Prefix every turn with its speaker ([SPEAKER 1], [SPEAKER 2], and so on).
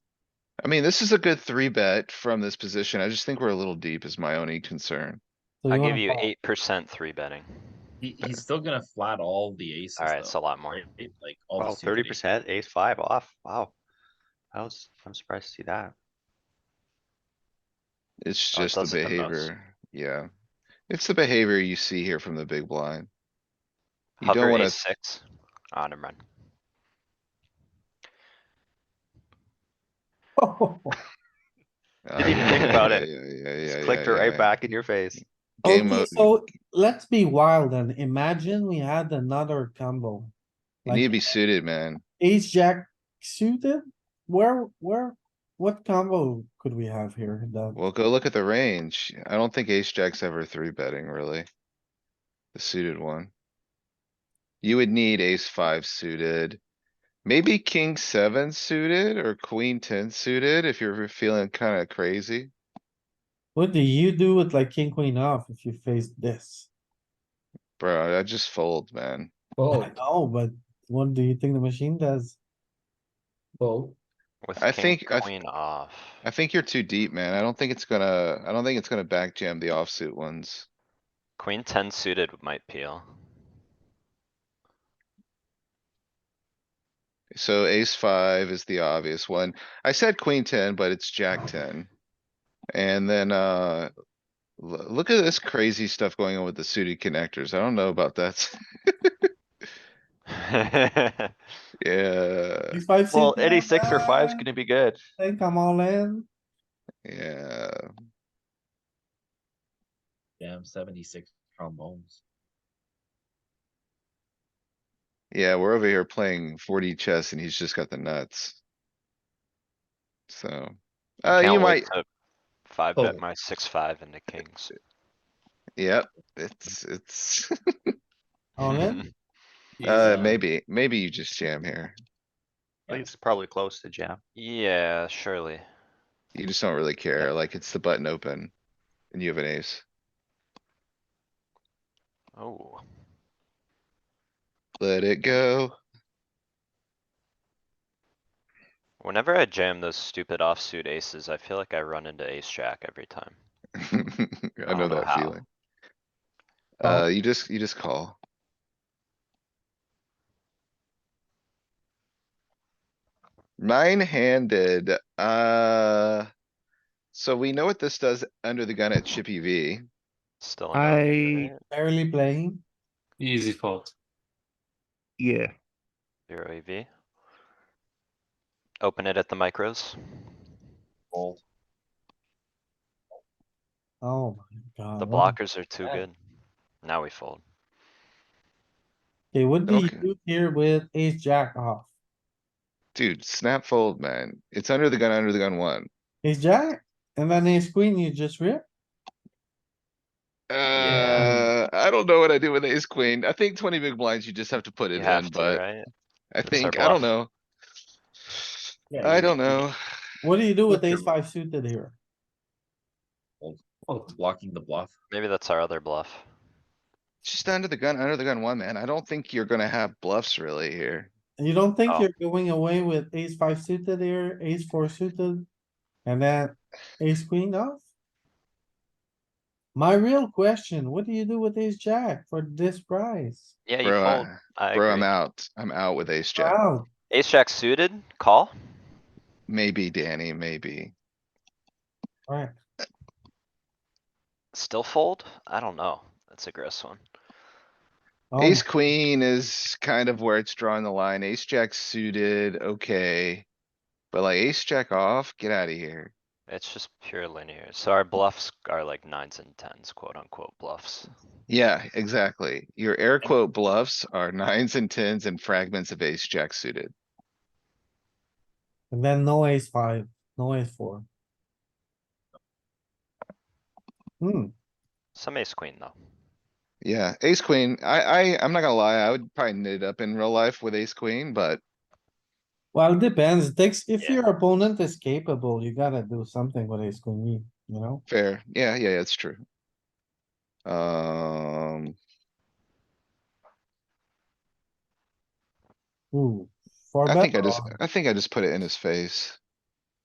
[SPEAKER 1] I mean, this is a good three bet from this position. I just think we're a little deep is my only concern.
[SPEAKER 2] So
[SPEAKER 3] I'll
[SPEAKER 2] wanna
[SPEAKER 3] give you
[SPEAKER 2] call.
[SPEAKER 3] eight percent three betting.
[SPEAKER 4] He, he's still gonna flat all the aces.
[SPEAKER 3] Alright, it's a
[SPEAKER 4] though,
[SPEAKER 3] lot more.
[SPEAKER 4] right? Like all
[SPEAKER 5] Wow,
[SPEAKER 4] the suited
[SPEAKER 5] thirty
[SPEAKER 4] aces.
[SPEAKER 5] percent, ace five off, wow. I was, I'm surprised to see that.
[SPEAKER 1] It's
[SPEAKER 5] Oh, it
[SPEAKER 1] just the
[SPEAKER 5] does it the most.
[SPEAKER 1] behavior, yeah. It's the behavior you see here from the big blind. You
[SPEAKER 3] Hover
[SPEAKER 1] don't wanna,
[SPEAKER 3] ace six on him run.
[SPEAKER 2] Oh,
[SPEAKER 5] Didn't
[SPEAKER 1] Ah,
[SPEAKER 5] even think about it.
[SPEAKER 1] it.
[SPEAKER 5] Just clicked it right back in your face.
[SPEAKER 1] Game
[SPEAKER 2] Okay,
[SPEAKER 1] mode.
[SPEAKER 2] so let's be wild and imagine we had another combo.
[SPEAKER 1] You need to
[SPEAKER 2] Like
[SPEAKER 1] be suited, man.
[SPEAKER 2] ace jack suited, where, where, what combo could we have here? The-
[SPEAKER 1] Well, go look at the range. I don't think ace jack's ever three betting really. The suited one. You would need ace five suited. Maybe king seven suited or queen ten suited if you're feeling kinda crazy.
[SPEAKER 2] What do you do with like king, queen off if you face this?
[SPEAKER 1] Bro, I just fold, man.
[SPEAKER 2] Oh, no, but what do you think the machine does?
[SPEAKER 3] With
[SPEAKER 1] I
[SPEAKER 3] king,
[SPEAKER 1] think- I th-
[SPEAKER 3] queen off.
[SPEAKER 1] I think you're too deep, man. I don't think it's gonna, I don't think it's gonna back jam the offsuit ones.
[SPEAKER 3] Queen ten suited might peel.
[SPEAKER 1] So ace five is the obvious one. I said queen ten, but it's jack ten. And then, uh, lo- look at this crazy stuff going on with the suited connectors. I don't know about that. Yeah,
[SPEAKER 2] Ace five
[SPEAKER 5] Uh, Well,
[SPEAKER 2] suited,
[SPEAKER 5] any six or five's
[SPEAKER 2] uh,
[SPEAKER 5] gonna be good.
[SPEAKER 2] I think I'm all in.
[SPEAKER 1] yeah.
[SPEAKER 4] Damn, seventy-six trombones.
[SPEAKER 1] Yeah, we're over here playing forty chess and he's just got the nuts. So,
[SPEAKER 3] I
[SPEAKER 1] uh, you
[SPEAKER 3] can't
[SPEAKER 1] might,
[SPEAKER 3] wait to Five bet
[SPEAKER 4] Oh.
[SPEAKER 3] my six, five into kings.
[SPEAKER 1] yep, it's, it's.
[SPEAKER 2] All in?
[SPEAKER 4] He's,
[SPEAKER 1] Uh, maybe, maybe you just jam here.
[SPEAKER 5] I think it's probably close to jam.
[SPEAKER 3] Yeah, surely.
[SPEAKER 1] You just don't really care, like it's the button open. And you have an ace.
[SPEAKER 3] Oh,
[SPEAKER 1] Let it go.
[SPEAKER 3] whenever I jam those stupid offsuit aces, I feel like I run into ace jack every time.
[SPEAKER 1] I know
[SPEAKER 3] don't know
[SPEAKER 1] that
[SPEAKER 3] how.
[SPEAKER 1] feeling.
[SPEAKER 2] Call.
[SPEAKER 3] Oh.
[SPEAKER 1] Uh, you just, you just call. Nine-handed, uh. So we know what this does under the gun at Chippy V.
[SPEAKER 3] Still. an open,
[SPEAKER 6] I-
[SPEAKER 3] right?
[SPEAKER 2] Barely playing.
[SPEAKER 7] Easy fold.
[SPEAKER 6] Yeah,
[SPEAKER 3] Zero EV. Open it at the micros.
[SPEAKER 4] Fold.
[SPEAKER 2] Oh my god.
[SPEAKER 3] The
[SPEAKER 2] what-
[SPEAKER 3] blockers are too
[SPEAKER 4] Yeah.
[SPEAKER 3] good. Now we fold.
[SPEAKER 2] Okay, what do you
[SPEAKER 1] Okay.
[SPEAKER 2] do here with ace jack off?
[SPEAKER 1] Dude, snap fold, man. It's under the gun, under the gun one.
[SPEAKER 2] Ace jack? And then ace queen, you just rip?
[SPEAKER 1] Uh, I don't know what I do with ace queen. I think twenty big blinds, you just have to put
[SPEAKER 3] You
[SPEAKER 1] it in,
[SPEAKER 3] have to,
[SPEAKER 1] but
[SPEAKER 3] right?
[SPEAKER 1] I
[SPEAKER 3] It's their
[SPEAKER 1] think, I don't
[SPEAKER 3] bluff.
[SPEAKER 1] know.
[SPEAKER 2] Yeah,
[SPEAKER 1] I
[SPEAKER 2] you-
[SPEAKER 1] don't know.
[SPEAKER 2] What do you do
[SPEAKER 4] Look,
[SPEAKER 2] with ace
[SPEAKER 4] you're-
[SPEAKER 2] five suited here?
[SPEAKER 7] Fold.
[SPEAKER 4] Blocking the bluff.
[SPEAKER 3] Maybe that's our other bluff.
[SPEAKER 1] Just under the gun, under the gun one, man. I don't think you're gonna have bluffs really here.
[SPEAKER 2] And You don't think
[SPEAKER 3] Oh.
[SPEAKER 2] you're going away with ace five suited here, ace four suited? And then ace queen off? My real question, what do you do with ace jack for this price?
[SPEAKER 3] Yeah, you
[SPEAKER 1] Bro,
[SPEAKER 3] fold.
[SPEAKER 1] I-
[SPEAKER 3] I
[SPEAKER 1] bro, I'm
[SPEAKER 3] agree.
[SPEAKER 1] out. I'm out with ace jack.
[SPEAKER 2] Wow,
[SPEAKER 3] Ace jack suited, call.
[SPEAKER 1] Maybe Danny, maybe.
[SPEAKER 2] right,
[SPEAKER 3] Still fold? I don't know. That's a gross one.
[SPEAKER 2] oh,
[SPEAKER 1] Ace queen is kind of where it's drawing the line. Ace jack suited, okay. But like ace jack off, get out of here.
[SPEAKER 3] It's just pure linear. So our bluffs are like nines and tens, quote unquote bluffs.
[SPEAKER 1] Yeah, exactly. Your air quote bluffs are nines and tens and fragments of ace jack suited.
[SPEAKER 2] and then no ace five, no ace four. Hmm,
[SPEAKER 3] Some ace queen though.
[SPEAKER 1] Yeah, ace queen. I, I, I'm not gonna lie. I would probably knit it up in real life with ace queen, but
[SPEAKER 2] well, it depends, It takes, if
[SPEAKER 3] Yeah.
[SPEAKER 2] your opponent is capable, you gotta do something with ace queen, you know?
[SPEAKER 1] Fair, yeah, yeah, that's true. Um,
[SPEAKER 2] Ooh. four
[SPEAKER 1] I
[SPEAKER 2] bet
[SPEAKER 1] think I just,
[SPEAKER 2] or-
[SPEAKER 1] I think I just put it in his face.